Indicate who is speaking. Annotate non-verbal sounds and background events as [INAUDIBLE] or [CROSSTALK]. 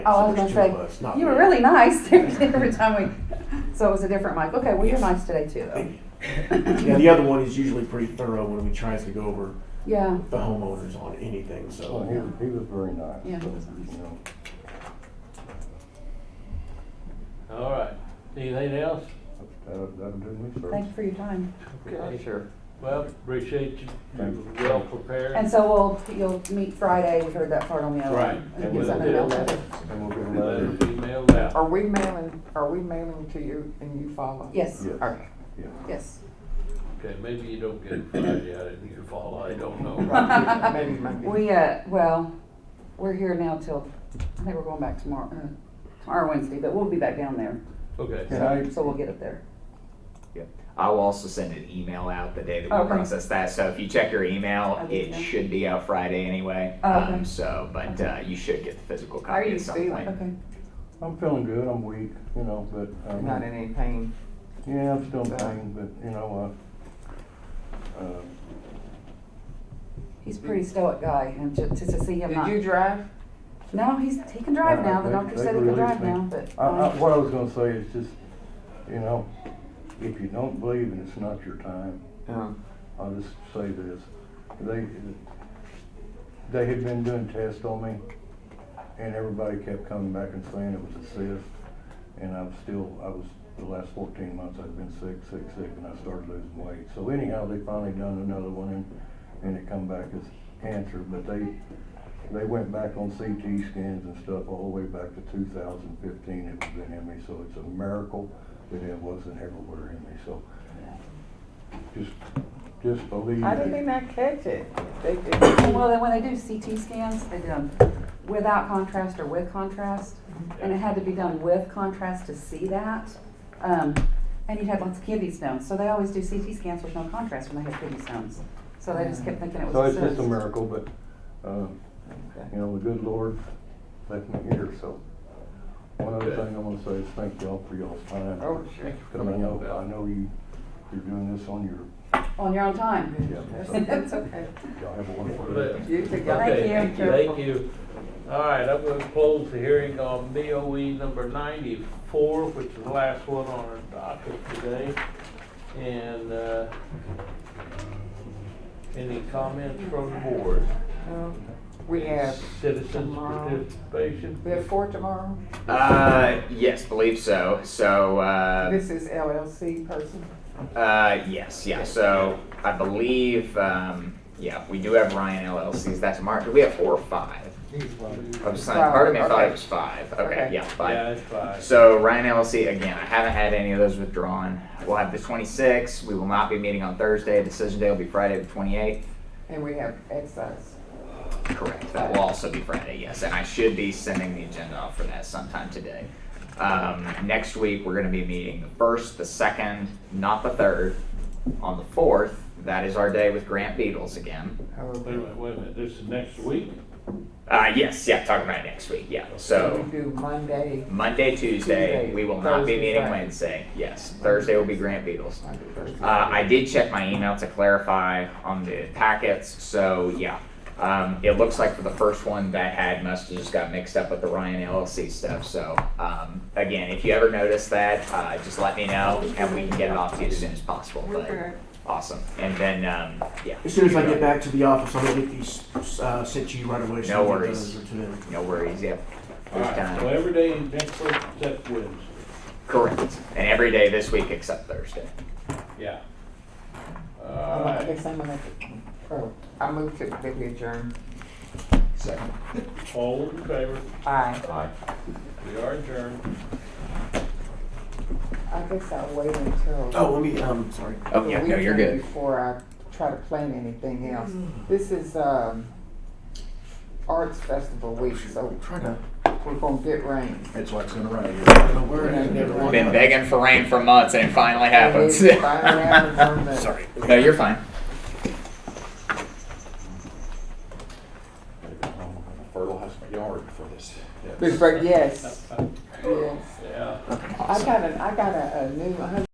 Speaker 1: Oh, I was
Speaker 2: So there's
Speaker 1: gonna
Speaker 2: two
Speaker 1: say,
Speaker 2: of us, not
Speaker 1: You were
Speaker 2: me.
Speaker 1: really nice [LAUGHS] every time we, so it was a different mic. Okay, well, you're nice today too, though.
Speaker 2: Thank you. Yeah, the other one is usually pretty thorough when we tries to go over
Speaker 1: Yeah,
Speaker 2: the homeowners on anything,
Speaker 3: Well,
Speaker 4: Oh,
Speaker 2: so.
Speaker 3: Oh, he, was- he was very nice.
Speaker 1: Yeah, he
Speaker 3: so,
Speaker 1: was nice.
Speaker 3: you know.
Speaker 5: All right, anything else?
Speaker 3: That'll, that'll do me, sir.
Speaker 1: thank you for your time.
Speaker 5: Okay.
Speaker 6: Sure.
Speaker 5: Well, appreciate you, you
Speaker 3: Thank
Speaker 5: were well prepared.
Speaker 1: And so we'll, you'll meet Friday. We heard that part on the other.
Speaker 5: Right.
Speaker 1: And get something else.
Speaker 3: And we'll get a
Speaker 5: Let
Speaker 3: letter.
Speaker 5: it be mailed out.
Speaker 6: Are we mailing, are we mailing to you and you follow?
Speaker 1: Yes,
Speaker 3: Yes,
Speaker 6: Okay.
Speaker 3: yes.
Speaker 1: yes.
Speaker 5: Okay, maybe you don't get it Friday, I didn't hear fall, I don't know.
Speaker 1: [LAUGHS]
Speaker 6: Right. Maybe Monday.
Speaker 1: We, uh, well, we're here now till, I think we're going back tomorrow, uh, tomorrow Wednesday, but we'll be back down there.
Speaker 5: Okay,
Speaker 3: Can I,
Speaker 1: So we'll get it there.
Speaker 7: I will also send an email out the day that we
Speaker 1: Okay.
Speaker 7: process that. So if you check your email,
Speaker 1: Okay,
Speaker 7: it
Speaker 1: yeah.
Speaker 7: should be out Friday anyway.
Speaker 1: Oh, okay.
Speaker 7: Um, so, but uh, you should get the physical
Speaker 6: How are
Speaker 7: copy
Speaker 6: you
Speaker 7: at some
Speaker 6: feeling?
Speaker 7: point.
Speaker 1: Okay.
Speaker 3: I'm feeling good, I'm weak, you know, but, um,
Speaker 6: Not in any pain.
Speaker 3: yeah, I'm still in
Speaker 6: Uh,
Speaker 3: pain, but, you know, uh, uh,
Speaker 1: He's a pretty stoic guy and to, to to see him
Speaker 6: Did
Speaker 1: not.
Speaker 6: you drive?
Speaker 1: No, he's, he can
Speaker 2: Uh,
Speaker 1: drive now. The
Speaker 3: They-
Speaker 1: doctor
Speaker 3: they
Speaker 1: said he can
Speaker 3: released
Speaker 1: drive
Speaker 3: me.
Speaker 1: now, but.
Speaker 3: I, I,
Speaker 1: um,
Speaker 3: what I was gonna say is just, you know, if you don't believe and it's not your time,
Speaker 6: No.
Speaker 3: I'll just say this. They, they had been doing tests on me and everybody kept coming back and saying it was a cyst. And I'm still, I was, the last fourteen months I've been sick, sick, sick, and I started losing weight. So anyhow, they finally done another one and, and it come back as cancer, but they, they went back on CT scans and stuff all the way back to two thousand fifteen it was in me, so it's a miracle that it wasn't everywhere in me, so. Just, just believe.
Speaker 6: How did
Speaker 3: it.
Speaker 6: they not catch it? They did.
Speaker 1: Well, then when they do CT scans, they do them without contrast or with contrast.
Speaker 3: Mm-hmm.
Speaker 1: And it had to be done with contrast to see that. Um, and you'd have lots of kidney stones. So they always do CT scans with no contrast when they have kidney stones. So they just kept thinking it was
Speaker 3: So
Speaker 1: a
Speaker 3: it's just a
Speaker 1: cyst.
Speaker 3: miracle, but, uh, you know, the good Lord left me here, so. One other
Speaker 5: Okay.
Speaker 3: thing I wanna say is thank y'all for y'all's time.
Speaker 6: Oh, sure.
Speaker 3: Cause I know, I know you, you're doing this on your,
Speaker 1: On your own time.
Speaker 3: yeah, so
Speaker 1: [LAUGHS]
Speaker 6: That's okay.
Speaker 3: y'all have a wonderful day.
Speaker 5: Well,
Speaker 6: You too.
Speaker 5: Okay,
Speaker 1: Thank you.
Speaker 5: Thank you. All right, I'm gonna close the hearing on BOE number ninety-four, which is the last one on our docket today. And, uh, any comments from the board?
Speaker 6: No. Um, We have,
Speaker 5: Citizens
Speaker 6: tomorrow.
Speaker 5: participation?
Speaker 6: we have four tomorrow.
Speaker 7: Uh, yes, believe so. So, uh,
Speaker 6: This is LLC person.
Speaker 7: uh, yes, yeah. So I believe, um, yeah, we do have Ryan LLC's. That's tomorrow. Do we have four or five? I'm sorry,
Speaker 6: Five,
Speaker 7: Pardon me, I thought
Speaker 6: okay.
Speaker 7: it was five. Okay,
Speaker 6: Okay.
Speaker 7: yeah, five.
Speaker 5: Yeah, that's fine.
Speaker 7: So Ryan LLC, again, I haven't had any of those withdrawn. We'll have the 26th. We will not be meeting on Thursday. Decision day will be Friday the 28th.
Speaker 6: And we have excise.
Speaker 7: Correct. That will also be Friday, yes. And I should be sending the agenda off for that sometime today. Um, next week, we're going to be meeting the first, the second, not the third. On the fourth, that is our day with Grant Beatles again.
Speaker 6: Oh,
Speaker 5: Wait a minute, wait a minute, this is next week?
Speaker 7: Uh, yes, yeah, talking about next week, yeah. So
Speaker 6: We do Monday,
Speaker 7: Monday, Tuesday,
Speaker 6: Tuesday,
Speaker 7: we will not be
Speaker 6: Thursday,
Speaker 7: meeting
Speaker 6: Friday.
Speaker 7: Wednesday. Yes, Thursday will be Grant Beatles.
Speaker 6: Monday, Thursday.
Speaker 7: Uh, I did check my email to clarify on the packets, so yeah. Um, it looks like for the first one that had must have just got mixed up with the Ryan LLC stuff, so, um, again, if you ever notice that, uh, just let me know and we can get it off to you as soon as possible, but, awesome. And then, um, yeah.
Speaker 2: As soon as I get back to the office, I'm gonna get these, uh, sent to you right away. so
Speaker 7: No
Speaker 2: you get
Speaker 7: worries.
Speaker 2: those to them.
Speaker 7: No worries, yep.
Speaker 5: All
Speaker 7: There's
Speaker 5: right, so
Speaker 7: time.
Speaker 5: every day next week except Wednesday.
Speaker 7: Correct. And every day this week except Thursday.
Speaker 5: Yeah.
Speaker 6: I'm
Speaker 5: All
Speaker 6: gonna- I
Speaker 5: right,
Speaker 6: guess I'm gonna, oh, I moved to, that we adjourn.
Speaker 7: Second.
Speaker 5: all in favor?
Speaker 6: Aye.
Speaker 5: Aye. We are adjourned.
Speaker 6: I guess I'll wait until.
Speaker 2: Oh, let me, um, sorry.
Speaker 7: Oh,
Speaker 6: the
Speaker 7: yeah, no, you're
Speaker 6: weekend
Speaker 7: good.
Speaker 6: Before I try to plan anything else. This is, um, Arts Festival week, so
Speaker 2: Try to.
Speaker 6: we're gonna get rain.
Speaker 2: It's what's gonna rain. Don't worry.
Speaker 7: Been begging for rain for months and it finally happens.
Speaker 2: [LAUGHS]
Speaker 7: [LAUGHS]
Speaker 6: It is finally happened on the-
Speaker 2: Sorry.
Speaker 7: No, you're fine.
Speaker 4: fertilize my yard for this.
Speaker 6: But, but yes, yes.
Speaker 5: Yeah.
Speaker 6: I got a, I got a, a new,